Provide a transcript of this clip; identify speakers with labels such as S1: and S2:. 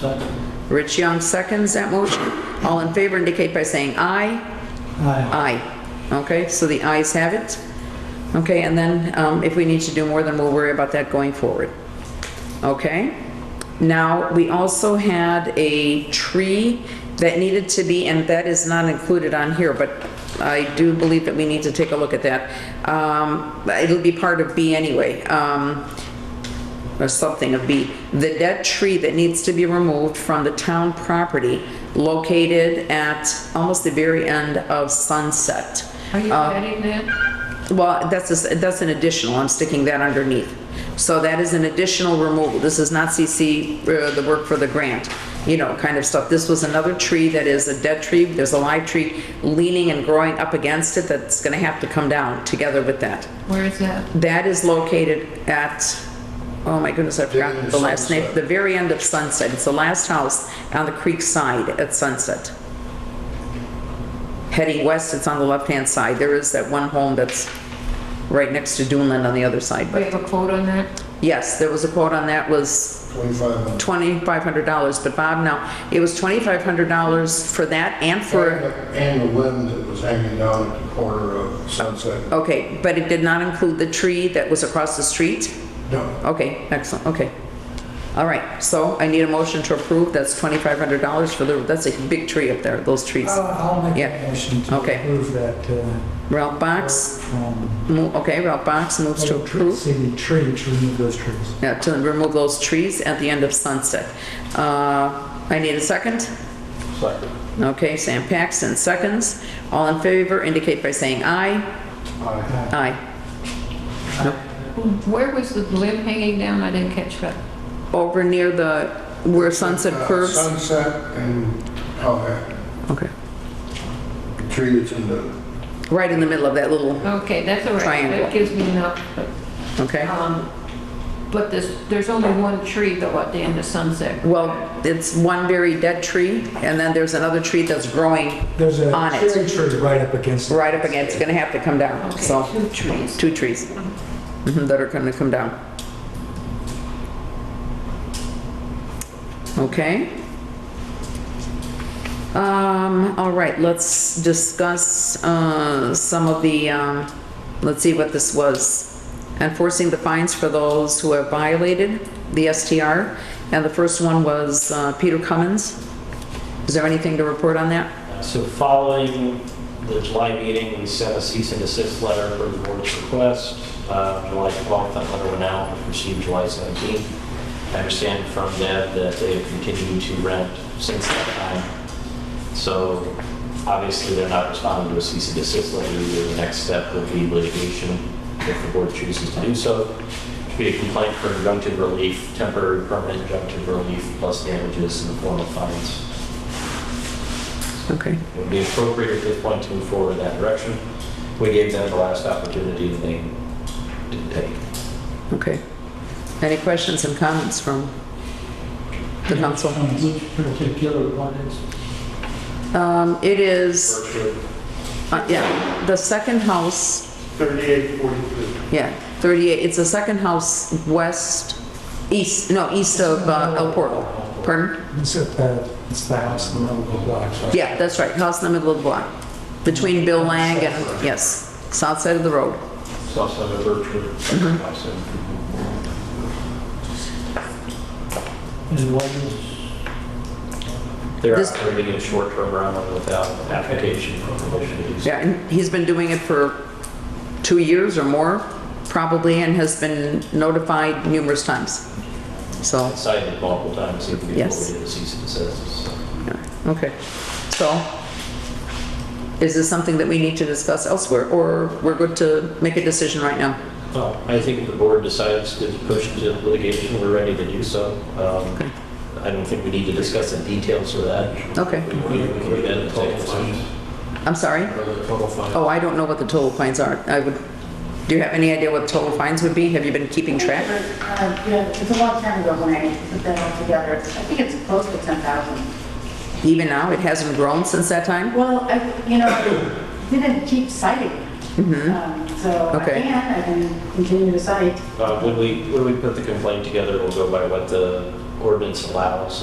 S1: Second.
S2: Rich Young seconds that motion. All in favor indicate by saying aye.
S1: Aye.
S2: Aye. Okay, so the ayes have it. Okay, and then um, if we need to do more, then we'll worry about that going forward. Okay? Now, we also had a tree that needed to be, and that is not included on here, but I do believe that we need to take a look at that. Um, It'll be part of B anyway. Um, or something of B, the dead tree that needs to be removed from the town property located at almost the very end of Sunset.
S3: Are you
S2: Uh,
S3: adding that?
S2: Well, that's, a- that's an additional, I'm sticking that underneath. So that is an additional removal, this is not CC, uh, the work for the grant, you know, kind of stuff. This was another tree that is a dead tree, there's a live tree leaning and growing up against it that's gonna have to come down together with that.
S3: Where is that?
S2: That is located at, oh my goodness, I've forgotten the last name,
S4: Sunset.
S2: the very end of Sunset. It's the last house on the creek side at Sunset. Heading west, it's on the left-hand side. There is that one home that's right next to Dunland on the other side.
S3: We
S2: But
S3: have a quote on that?
S2: yes, there was a quote on that was
S4: 2,500.
S2: $2,500. But Bob, no, it was $2,500 for that and for,
S4: And the limb that was hanging down at the corner of Sunset.
S2: okay, but it did not include the tree that was across the street?
S4: No,
S2: Okay, excellent, okay. All right, so I need a motion to approve, that's $2,500 for the, that's a big tree up there, those trees.
S1: I'll I'll make
S2: Yeah.
S1: a motion to
S2: Okay.
S1: approve that, uh,
S2: Ralph Box,
S1: um,
S2: mo- okay, Ralph Box moves to approve,
S1: see the tree, to remove those trees.
S2: yeah, to remove those trees at the end of Sunset. Uh, I need a second? Second. Okay, Sam Paxton, seconds. All in favor indicate by saying aye.
S4: I,
S2: Aye.
S3: Where was the limb hanging down? I didn't catch that.
S2: Over near the, where Sunset
S4: uh,
S2: curves?
S4: Sunset and, oh,
S2: Okay.
S4: that tree that's in the,
S2: Right in the middle of that little,
S3: Okay, that's all right.
S2: Triangle.
S3: That gives me enough.
S2: okay?
S3: Um, But there's, there's only one tree though at the end of Sunset.
S2: Well, it's one very dead tree, and then there's another tree that's growing
S1: There's a
S2: on
S1: cherry
S2: it,
S1: tree right up against it.
S2: right up against, it's gonna have to come down,
S3: Okay,
S2: so,
S3: two trees.
S2: two trees mhm, that are gonna come down. Okay? Um, all right, let's discuss, uh, some of the, um, let's see what this was. Enforcing the fines for those who have violated the STR, and the first one was, uh, Peter Cummins. Is there anything to report on that?
S5: So following the July meeting, we sent a cease and desist letter for the board's request. Uh, July 12th, that letter went out, was received July 17th. I understand from them that they have continued to rent since that time. So obviously, they're not responding to a cease and desist letter. either. The next step would be litigation if the board chooses to do so. Should Be a complaint for injunctive relief, temporary permanent injunctive relief, plus damages in the form of fines
S2: Okay.
S5: would be appropriate at this point to move forward in that direction. We gave them the last opportunity and they didn't take. it.
S2: Okay. Any questions and comments from the council?
S6: Which particular one is,
S2: Um, It is,
S5: Berkshire,
S2: uh, yeah, the second house,
S7: 3842.
S2: yeah, 38, it's the second house west, east, no, east of uh, El Portal. Pardon?
S1: It's at the, it's the house in the middle of the block.
S2: Yeah, that's right, house in the middle of the block, between Bill Lang and, yes, south side of the road.
S5: It's also a Berkshire. Also.
S6: and what is,
S5: They're
S2: This-
S5: operating a short-term rental without application for permission to do so.
S2: Yeah, and he's been doing it for two years or more, probably, and has been notified numerous times. So,
S5: Cited multiple times even before we did
S2: Yes.
S5: the cease and desist. so.
S2: Okay, so is this something that we need to discuss elsewhere, or we're good to make a decision right now?
S5: Well, I think if the board decides to push to litigation, we're ready to do so. Um, I don't think we need to discuss the details of that.
S2: Okay,
S5: We we can do that in the second session.
S2: I'm sorry? Oh, I don't know what the total fines are. I would, do you have any idea what total fines would be? Have you been keeping track?
S8: Uh, Yeah, it's a long time ago when I put that all together. I think it's close to 10,000.
S2: Even now, it hasn't grown since that time?
S8: Well, I, you know, I didn't keep citing. Um, So I
S2: Okay.
S8: can, I can continue to cite.
S5: Uh, When we, when we put the complaint together, we'll go by what the ordinance allows